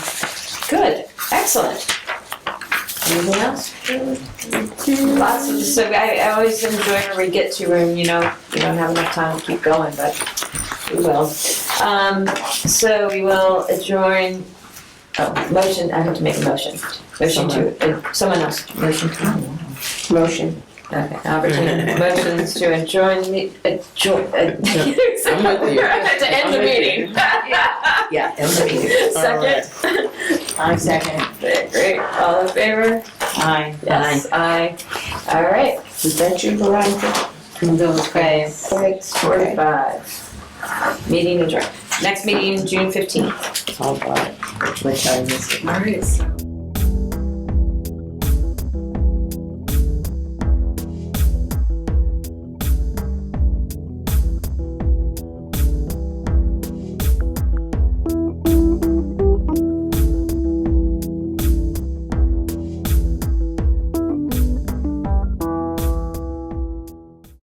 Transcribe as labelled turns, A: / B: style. A: Good, excellent. Anything else? Lots of, so I, I always enjoy when we get to when, you know, we don't have enough time to keep going, but we will. Um, so we will adjourn, oh, motion, I have to make a motion. Motion to, uh, someone else, motion to.
B: Motion.
A: Okay, opportunity, motions to adjourn, the- adjourn, ad-
B: with you.
A: to end the
B: I'm with you.
A: meeting.
B: Yeah. and the meeting.
A: Second,
B: I second.
A: great, all in favor?
B: Aye.
A: Yes, aye. All right,
B: Is that you, Veronica?
A: those guys, six forty-five. Meeting adjourned. Next meeting, June fifteenth.
B: All right. Which I missed.
A: All right.